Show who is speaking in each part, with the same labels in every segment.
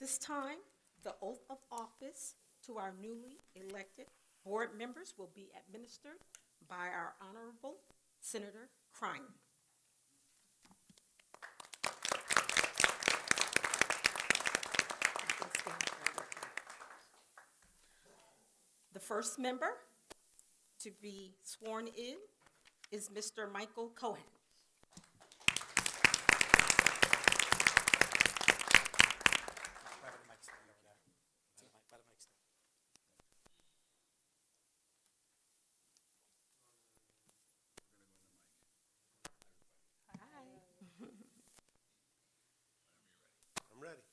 Speaker 1: this time, the oath of office to our newly elected board members will be administered by our Honorable Senator Crime. The first member to be sworn in is Mr. Michael Cohen.
Speaker 2: By the mic stand over there. By the mic- by the mic stand.
Speaker 3: I'm ready.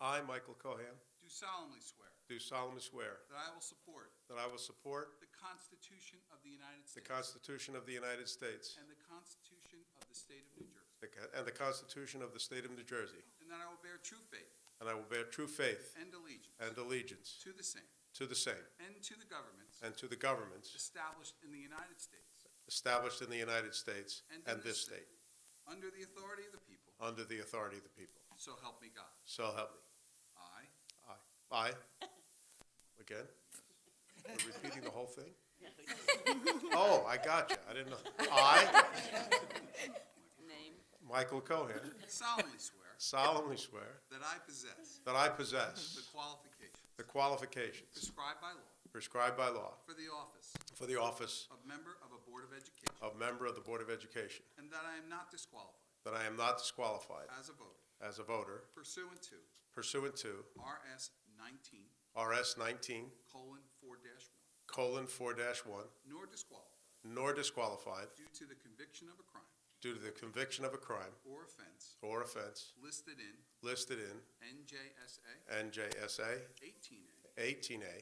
Speaker 3: I, Michael Cohen,
Speaker 4: Do solemnly swear
Speaker 3: do solemnly swear
Speaker 4: that I will support
Speaker 3: that I will support
Speaker 4: the Constitution of the United
Speaker 3: the
Speaker 4: States
Speaker 3: Constitution of the United States
Speaker 4: and the Constitution of the State of New Jersey,
Speaker 3: the co- and the Constitution of the State of New Jersey,
Speaker 4: and that I will bear true faith
Speaker 3: and I will bear true faith
Speaker 4: and allegiance
Speaker 3: and allegiance
Speaker 4: to the same
Speaker 3: to the same
Speaker 4: and to the governments
Speaker 3: and to the governments
Speaker 4: established in the United States
Speaker 3: established in the United States
Speaker 4: and in
Speaker 3: and this state,
Speaker 4: under the authority of the people,
Speaker 3: under the authority of the people.
Speaker 4: so help me God.
Speaker 3: So help me.
Speaker 4: I,
Speaker 3: I, again, we're repeating the whole thing? Oh, I got you. I didn't know. I,
Speaker 5: Name.
Speaker 3: Michael Cohen,
Speaker 4: solemnly swear
Speaker 3: solemnly swear
Speaker 4: that I possess
Speaker 3: that I
Speaker 4: the
Speaker 3: possess
Speaker 4: qualifications
Speaker 3: the qualifications
Speaker 4: prescribed by law
Speaker 3: prescribed by law
Speaker 4: for the office
Speaker 3: for the office
Speaker 4: of member of a Board of Education,
Speaker 3: of member of the Board of Education,
Speaker 4: and that I am not disqualified
Speaker 3: that I am not disqualified
Speaker 4: as a voter
Speaker 3: as a voter
Speaker 4: pursuant to
Speaker 3: pursuant to
Speaker 4: RS nineteen
Speaker 3: RS 19
Speaker 4: colon four dash one,
Speaker 3: colon 4 1,
Speaker 4: nor disqualified
Speaker 3: nor disqualified
Speaker 4: due to the conviction of a crime
Speaker 3: due to the conviction of a crime
Speaker 4: or offense
Speaker 3: or offense
Speaker 4: listed in
Speaker 3: listed in
Speaker 4: NJSA
Speaker 3: NJSA
Speaker 4: eighteen A
Speaker 3: 18A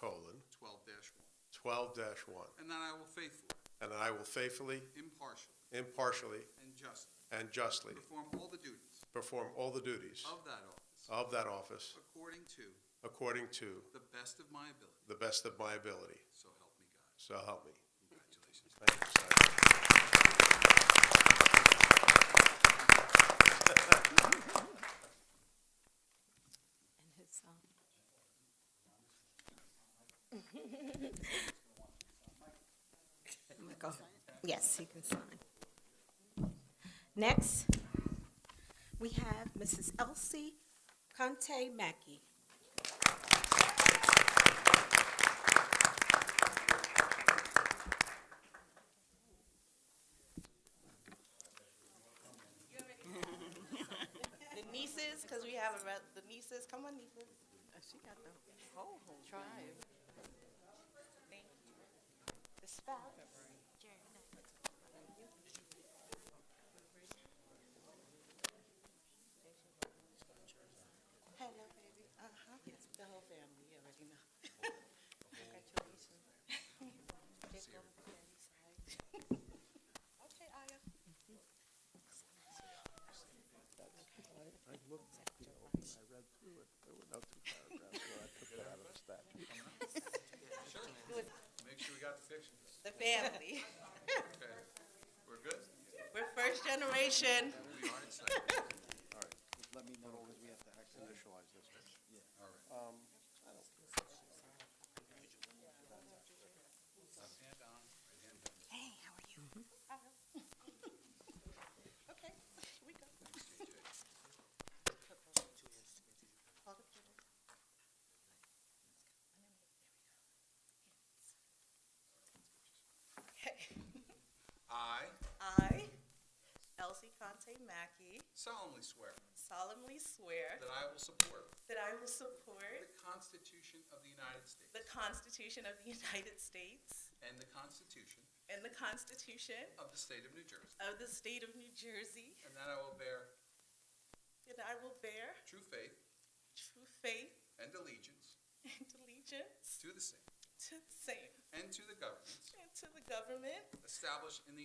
Speaker 4: colon
Speaker 3: colon
Speaker 4: twelve dash one,
Speaker 3: 12 1,
Speaker 4: and that I will faithfully,
Speaker 3: and that I will faithfully,
Speaker 4: impartially,
Speaker 3: impartially,
Speaker 4: and justly
Speaker 3: and justly
Speaker 4: perform all the duties
Speaker 3: perform all the duties
Speaker 4: of that office
Speaker 3: of that office
Speaker 4: according to
Speaker 3: according to
Speaker 4: the best of my ability,
Speaker 3: the best of my ability.
Speaker 4: so help me God.
Speaker 3: So help me.
Speaker 4: Congratulations.
Speaker 3: Thank you, sir.
Speaker 1: And his, um, Michael, Yes, he can sign. Next, we have Mrs. Elsie Conte Mackey.
Speaker 5: The nieces, because we have a, re- the nieces, come on nieces. Oh, She got the whole, whole. Tribe. The spouse. Hello, baby. Uh-huh. Yes, the whole family, you already know. Congratulations. Take over the daddy's side. Okay, Aya.
Speaker 4: Make sure we got the picture.
Speaker 5: The family.
Speaker 4: Okay. We're good?
Speaker 5: We're first generation.
Speaker 4: We are excited.
Speaker 6: let me know because we have to act- initialize this. one.
Speaker 4: Hand down, right hand down.
Speaker 5: Hey, how are you? Okay, we go.
Speaker 4: I
Speaker 5: I, Elsie Conte Mackey,
Speaker 4: solemnly swear
Speaker 5: solemnly swear
Speaker 4: that I will support
Speaker 5: that I will support
Speaker 4: the Constitution of the United States
Speaker 5: the Constitution of the United States
Speaker 4: and the Constitution
Speaker 5: and the Constitution
Speaker 4: of the State of New Jersey,
Speaker 5: of the State of New Jersey,
Speaker 4: and that I will bear
Speaker 5: that I will bear
Speaker 4: true faith
Speaker 5: true faith
Speaker 4: and allegiance
Speaker 5: and allegiance
Speaker 4: to the same
Speaker 5: to the same
Speaker 4: and to the governments
Speaker 5: and to the government
Speaker 4: established in the